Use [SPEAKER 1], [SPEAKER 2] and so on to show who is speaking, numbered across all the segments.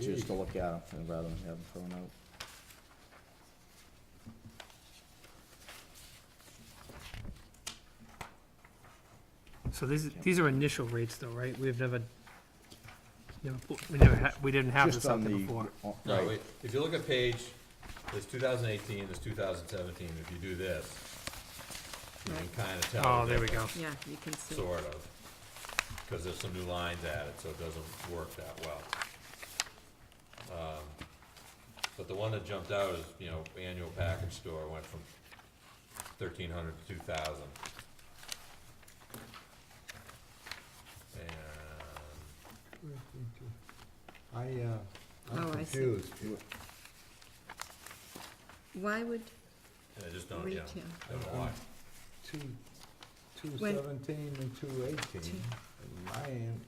[SPEAKER 1] choose to look at them rather than have them thrown out.
[SPEAKER 2] So these, these are initial rates though, right? We've never, never, put- we never had, we didn't have this
[SPEAKER 1] Just
[SPEAKER 2] out
[SPEAKER 1] on
[SPEAKER 2] there
[SPEAKER 1] the-
[SPEAKER 2] before.
[SPEAKER 1] on-
[SPEAKER 3] No,
[SPEAKER 1] Right,
[SPEAKER 3] wait, if you look at page, there's two thousand eighteen, there's two thousand seventeen, if you do this, you can kinda tell.
[SPEAKER 2] Oh,
[SPEAKER 3] the
[SPEAKER 2] there we go.
[SPEAKER 3] difference,
[SPEAKER 4] Yeah, you can see.
[SPEAKER 3] Sort of, cause there's some new lines added, so it doesn't work that well. Um, But the one that jumped out is, you know, annual package store went from thirteen hundred to two thousand. And
[SPEAKER 5] I, uh, I'm
[SPEAKER 4] Oh, I see.
[SPEAKER 5] confused.
[SPEAKER 4] Why would
[SPEAKER 3] And I just don't, uh, yeah,
[SPEAKER 4] retail,
[SPEAKER 3] I don't know why.
[SPEAKER 5] Two, two
[SPEAKER 4] When-
[SPEAKER 5] seventeen and two eighteen, mine,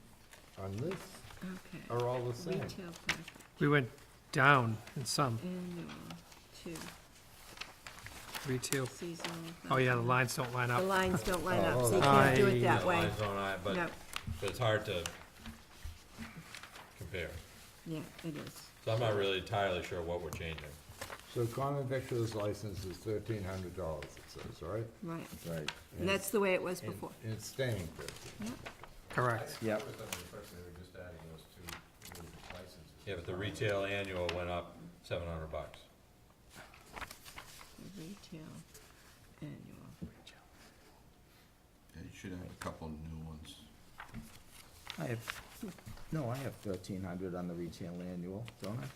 [SPEAKER 5] on this,
[SPEAKER 4] okay,
[SPEAKER 5] are all the same.
[SPEAKER 4] retail package,
[SPEAKER 2] We went down in some
[SPEAKER 4] annual, two,
[SPEAKER 2] retail.
[SPEAKER 4] seasonal.
[SPEAKER 2] Oh, yeah, the
[SPEAKER 4] package.
[SPEAKER 2] lines don't line
[SPEAKER 4] The
[SPEAKER 2] up.
[SPEAKER 4] lines don't line up,
[SPEAKER 5] Oh,
[SPEAKER 4] so you
[SPEAKER 2] oh,
[SPEAKER 4] can't do
[SPEAKER 2] I-
[SPEAKER 4] it that
[SPEAKER 3] The
[SPEAKER 4] way.
[SPEAKER 3] lines don't lie, but,
[SPEAKER 4] No,
[SPEAKER 3] but it's hard to compare.
[SPEAKER 4] yeah, it is.
[SPEAKER 3] So I'm not really entirely sure what we're changing.
[SPEAKER 5] So common victuals license is thirteen hundred dollars, it says, right?
[SPEAKER 4] Right,
[SPEAKER 1] right,
[SPEAKER 4] and that's the way it was
[SPEAKER 5] And-
[SPEAKER 4] before.
[SPEAKER 5] And it's staying fifteen.
[SPEAKER 2] Correct.
[SPEAKER 1] yep,
[SPEAKER 3] Yeah, but the retail annual went up seven hundred bucks.
[SPEAKER 4] The Retail, annual.
[SPEAKER 6] Yeah, you should have a couple new ones.
[SPEAKER 1] I have, no, I have thirteen hundred on the retail annual, don't I?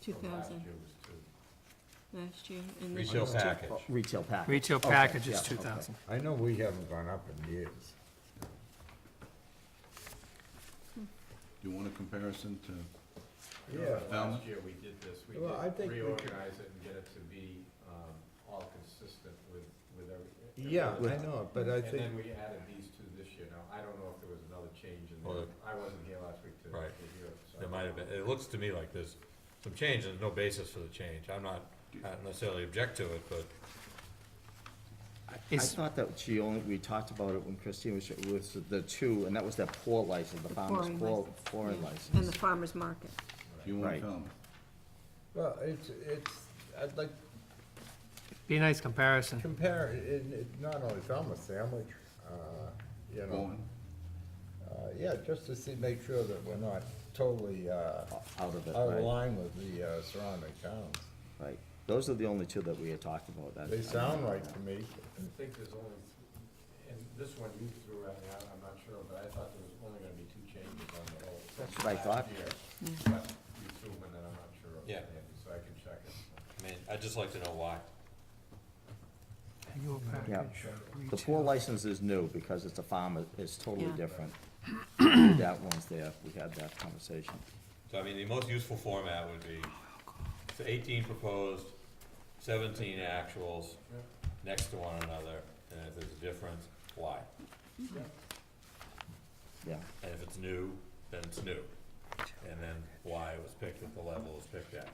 [SPEAKER 4] Two thousand. Last year, and this
[SPEAKER 3] Retail
[SPEAKER 4] year's two.
[SPEAKER 3] package.
[SPEAKER 1] Oh, Retail package.
[SPEAKER 2] Retail
[SPEAKER 1] Okay,
[SPEAKER 2] package is
[SPEAKER 1] yeah,
[SPEAKER 2] two
[SPEAKER 1] okay.
[SPEAKER 2] thousand.
[SPEAKER 5] I know we haven't gone up in years.
[SPEAKER 6] Do you want a comparison to,
[SPEAKER 5] Yeah.
[SPEAKER 6] Falmouth?
[SPEAKER 7] Last year, we did this, we did
[SPEAKER 5] Well, I think we could-
[SPEAKER 7] reorganize it and get it to be, um, all consistent with, with every.
[SPEAKER 5] Yeah,
[SPEAKER 7] every
[SPEAKER 5] I
[SPEAKER 7] town.
[SPEAKER 5] know, but I
[SPEAKER 7] And
[SPEAKER 5] think,
[SPEAKER 7] then we added these two this year, now, I don't know if there was another change in
[SPEAKER 3] Well,
[SPEAKER 7] there, I wasn't here last week to, to
[SPEAKER 3] Right.
[SPEAKER 7] hear it, so.
[SPEAKER 3] There might have been, it looks to me like there's some change, and there's no basis for the change. I'm not, I don't necessarily object to it, but
[SPEAKER 1] I
[SPEAKER 2] Is,
[SPEAKER 1] thought that she only, we talked about it when Christine was, was the two, and that was that pour license, the farmer's
[SPEAKER 4] pouring
[SPEAKER 1] pour,
[SPEAKER 4] license,
[SPEAKER 1] pouring
[SPEAKER 4] yeah,
[SPEAKER 1] license.
[SPEAKER 4] And the farmer's market.
[SPEAKER 6] you want
[SPEAKER 1] Right.
[SPEAKER 6] Falmouth?
[SPEAKER 5] well, it's, it's, I'd like
[SPEAKER 2] be a nice comparison.
[SPEAKER 5] compare, it, it, not only Falmouth sandwich, uh, you know,
[SPEAKER 6] Bowen?
[SPEAKER 5] uh, yeah, just to see, make sure that we're not totally, uh,
[SPEAKER 1] Out of it,
[SPEAKER 5] out of
[SPEAKER 1] right,
[SPEAKER 5] line with the uh, surrounding towns.
[SPEAKER 1] right. Those are the only two that we had talked about. that-
[SPEAKER 5] They sound right to me.
[SPEAKER 7] I think there's only, and this one you threw at me, I- I'm not sure, but I thought there was only gonna be two changes on the whole.
[SPEAKER 1] That's what I thought.
[SPEAKER 7] But you threw one that I'm not sure of,
[SPEAKER 3] Yeah.
[SPEAKER 7] Andy, so I can check it.
[SPEAKER 3] I mean, I'd just like to know why.
[SPEAKER 2] Annual
[SPEAKER 1] Yeah.
[SPEAKER 2] package,
[SPEAKER 1] The
[SPEAKER 2] retail.
[SPEAKER 1] pour license is new because it's a farmer, it's totally
[SPEAKER 4] Yeah.
[SPEAKER 1] different. That one's there, we had that conversation.
[SPEAKER 3] So I mean, the most useful format would be so eighteen proposed, seventeen actuals, next to one another, and if there's a difference, why?
[SPEAKER 1] Yeah,
[SPEAKER 3] And if it's new, then it's new. And then why it was picked at the level it was picked at.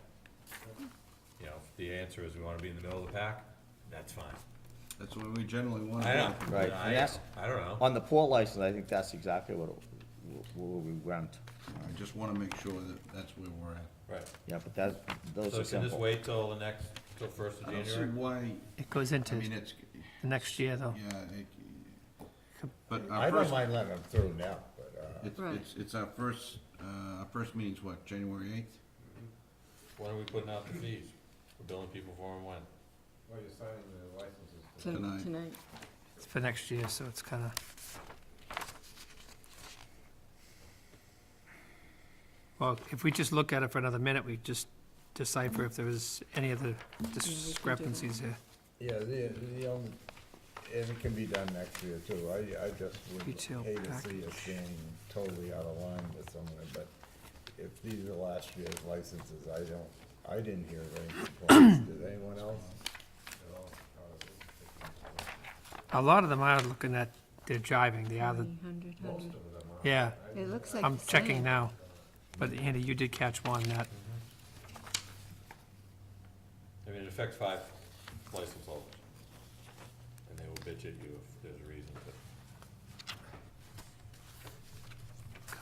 [SPEAKER 3] You know, if the answer is we wanna be in the middle of the pack, that's fine.
[SPEAKER 6] That's what we generally want to
[SPEAKER 3] I
[SPEAKER 6] do.
[SPEAKER 3] know,
[SPEAKER 1] Oh, Right,
[SPEAKER 3] I
[SPEAKER 1] and that's-
[SPEAKER 3] I don't know.
[SPEAKER 1] on the pour license, I think that's exactly what, it- where we went.
[SPEAKER 6] I just want to make sure that that's where we're at.
[SPEAKER 3] Right,
[SPEAKER 1] Yeah, but that, those
[SPEAKER 3] so
[SPEAKER 1] are
[SPEAKER 3] can this
[SPEAKER 1] simple.
[SPEAKER 3] wait till the next, till first of
[SPEAKER 6] I don't see
[SPEAKER 3] January?
[SPEAKER 6] why,
[SPEAKER 2] It goes into
[SPEAKER 6] I mean,
[SPEAKER 2] the
[SPEAKER 6] it's,
[SPEAKER 2] next year though.
[SPEAKER 6] yeah, it, but
[SPEAKER 5] I
[SPEAKER 6] our
[SPEAKER 5] don't
[SPEAKER 6] first,
[SPEAKER 5] mind letting them through now, but, uh,
[SPEAKER 6] it's,
[SPEAKER 4] Right.
[SPEAKER 6] it's, it's our first, uh, our first meeting's what, January eighth?
[SPEAKER 3] When are we putting out the fees? We're billing people for them when?
[SPEAKER 7] Well, you're signing the licenses.
[SPEAKER 4] Ton-
[SPEAKER 6] Tonight.
[SPEAKER 7] today.
[SPEAKER 4] Tonight,
[SPEAKER 2] It's for next year, so it's kinda, well, if we just look at it for another minute, we just
[SPEAKER 4] Mm-hmm.
[SPEAKER 2] decipher if there was any other discrepancies here.
[SPEAKER 5] yeah, the, the, um, and it can be done next year too. I, I just would
[SPEAKER 2] Retail
[SPEAKER 5] hate to see us
[SPEAKER 2] package.
[SPEAKER 5] being totally out of line with someone, but if these are last year's licenses, I don't, I didn't hear of any complaints. Did anyone else?
[SPEAKER 4] Mm-hmm.
[SPEAKER 2] A lot of them are looking at, they're jiving, they are the,
[SPEAKER 4] 300,
[SPEAKER 7] Most
[SPEAKER 4] 100.
[SPEAKER 7] of them are.
[SPEAKER 2] yeah,
[SPEAKER 4] It looks Mm-hmm. like
[SPEAKER 2] I'm
[SPEAKER 4] the
[SPEAKER 2] checking
[SPEAKER 4] same.
[SPEAKER 2] now. But Andy, you did catch one that,
[SPEAKER 3] I mean, it affects five license holders. And they will bitch at you if there's a reason